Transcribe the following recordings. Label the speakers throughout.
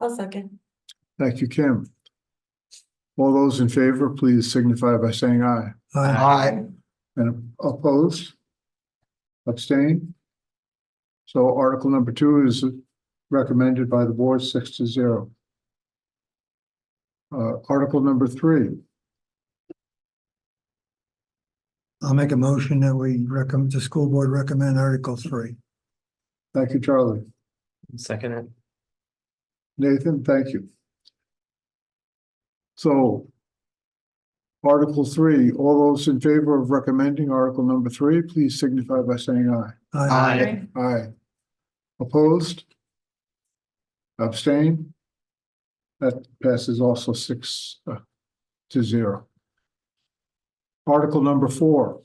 Speaker 1: I'll second.
Speaker 2: Thank you, Kim. All those in favor, please signify by saying aye.
Speaker 3: Aye.
Speaker 2: And opposed? Abstain? So article number two is recommended by the board six to zero. Uh, article number three,
Speaker 3: I'll make a motion that we recommend, the school board recommend Article Three.
Speaker 2: thank you, Charlie.
Speaker 4: Second it.
Speaker 2: Nathan, thank you. So article three, all those in favor of recommending article number three, please signify by saying aye.
Speaker 1: Aye.
Speaker 2: Aye. Opposed? Abstain? That passes also six uh, to zero. Article number four,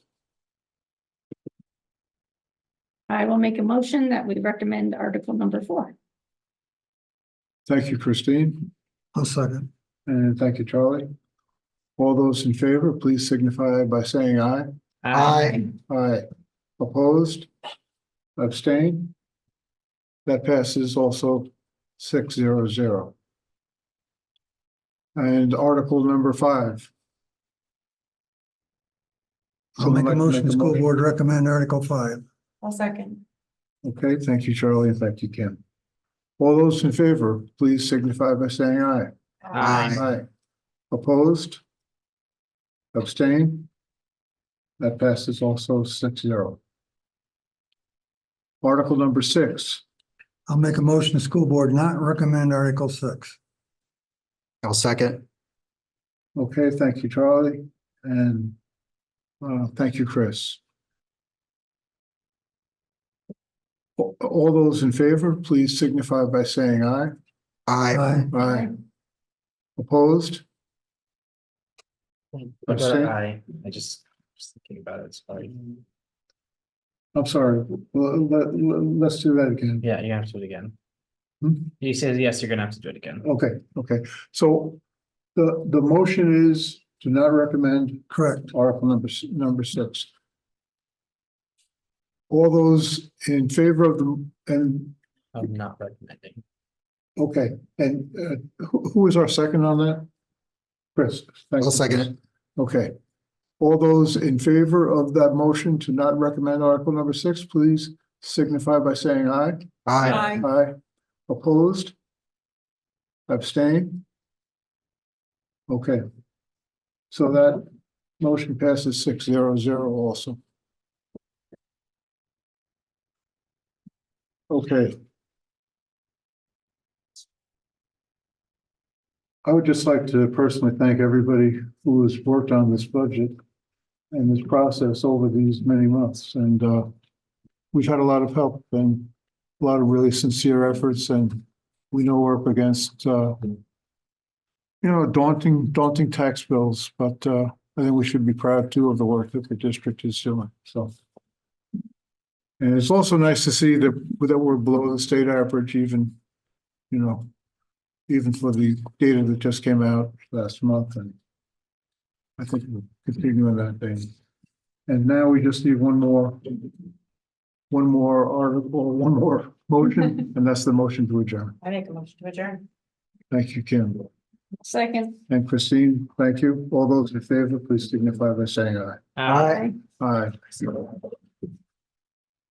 Speaker 5: I will make a motion that we recommend article number four.
Speaker 2: thank you, Christine,
Speaker 3: I'll second.
Speaker 2: and thank you, Charlie. All those in favor, please signify by saying aye. Aye. Opposed? Abstain? That passes also six zero zero. And article number five.
Speaker 3: I'll make
Speaker 2: Someone
Speaker 3: a
Speaker 2: like to
Speaker 3: motion,
Speaker 2: make
Speaker 3: the
Speaker 2: a
Speaker 3: school
Speaker 2: motion?
Speaker 3: board recommend Article Five.
Speaker 1: I'll second.
Speaker 2: Okay, thank you, Charlie, and thank you, Kim. All those in favor, please signify by saying aye.
Speaker 4: Aye.
Speaker 2: Opposed? Abstain? That passes also six zero. Article number six,
Speaker 3: I'll make a motion, the school board not recommend Article Six.
Speaker 6: I'll second.
Speaker 2: okay, thank you, Charlie, and uh, thank you, Chris. A- All those in favor, please signify by saying aye.
Speaker 6: Aye.
Speaker 3: Aye.
Speaker 2: Aye. Opposed?
Speaker 4: I got
Speaker 2: Abstain?
Speaker 4: an aye. I just, just thinking about it, sorry.
Speaker 2: I'm sorry, Well, let, let- let's do that again.
Speaker 4: Yeah, you have to do it again.
Speaker 2: Hmm? Oh.
Speaker 4: He says, yes, you're gonna have to do it again.
Speaker 2: Okay, okay, so the, the motion is to not recommend
Speaker 3: Correct.
Speaker 2: article number, s- number six. All those in favor of the, and,
Speaker 4: I'm not recommending.
Speaker 2: okay, and uh, who, who is our second on that? Chris? thank
Speaker 6: I'll
Speaker 2: you,
Speaker 6: second
Speaker 2: Chris.
Speaker 6: it.
Speaker 2: Okay. All those in favor of that motion to not recommend article number six, please signify by saying aye.
Speaker 6: Aye.
Speaker 1: Aye.
Speaker 2: Aye. Opposed? Abstain? Okay. So that motion passes six zero zero also. Okay. I would just like to personally thank everybody who has worked on this budget and this process over these many months, and uh, we've had a lot of help and a lot of really sincere efforts and we know we're up against, uh, you know, daunting, daunting tax bills, but, uh, I think we should be proud too of the work that the district is doing, so. And it's also nice to see that, that we're below the state average even, you know, even for the data that just came out last month and I think we're continuing that thing. And now we just need one more one more article, one more motion, and that's the motion to adjourn.
Speaker 1: I make a motion to adjourn.
Speaker 2: Thank you, Kim.
Speaker 5: Second.
Speaker 2: And Christine, thank you. All those in favor, please signify by saying aye.
Speaker 4: Aye.
Speaker 2: Aye.